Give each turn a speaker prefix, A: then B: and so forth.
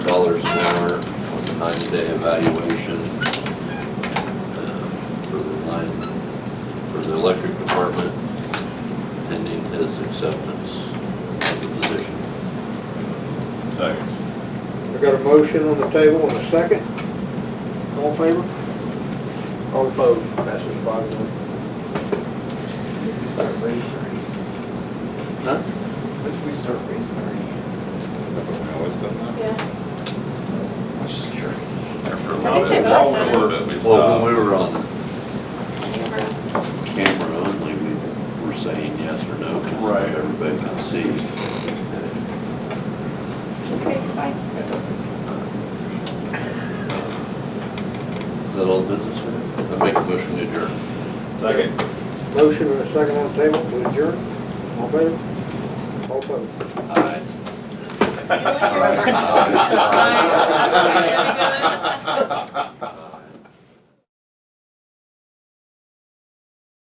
A: dollars an hour on the ninety-day evaluation uh, for the line, for the electric department pending his acceptance of the position.
B: Second.
C: We got a motion on the table and a second. All in favor? All opposed? Passes five one.
D: If we start raising our hands,
A: Huh?
D: if we start raising our hands,
E: Yeah,
D: I'm just curious.
B: After a
E: I
B: little
E: think
B: bit,
E: they lost
B: after a little bit, we
A: Well, when we
B: stopped.
A: were on
E: camera.
A: camera only, we were saying yes or no. 'cause
B: Right.
A: Everybody could see.
E: Okay, fine.
A: Is that all business? sir? I make a motion to adjourn.
B: Second.
C: Motion and a second on the table to adjourn. All in favor? All opposed?
A: Aye.
E: See you later.
A: All right. Aye.